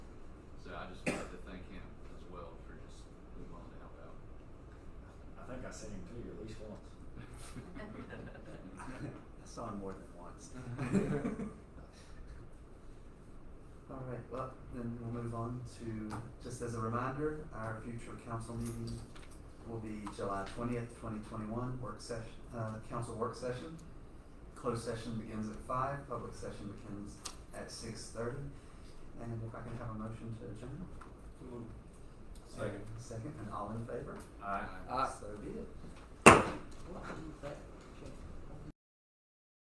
more than once. All right, well, then we'll move on to, just as a reminder, our future council meeting will be July twentieth, twenty twenty-one, work session, uh, council work session. Closed session begins at five, public session begins at six thirty. And if I can have a motion to adjourn? Second. Second, and all in favor? Aye. So be it.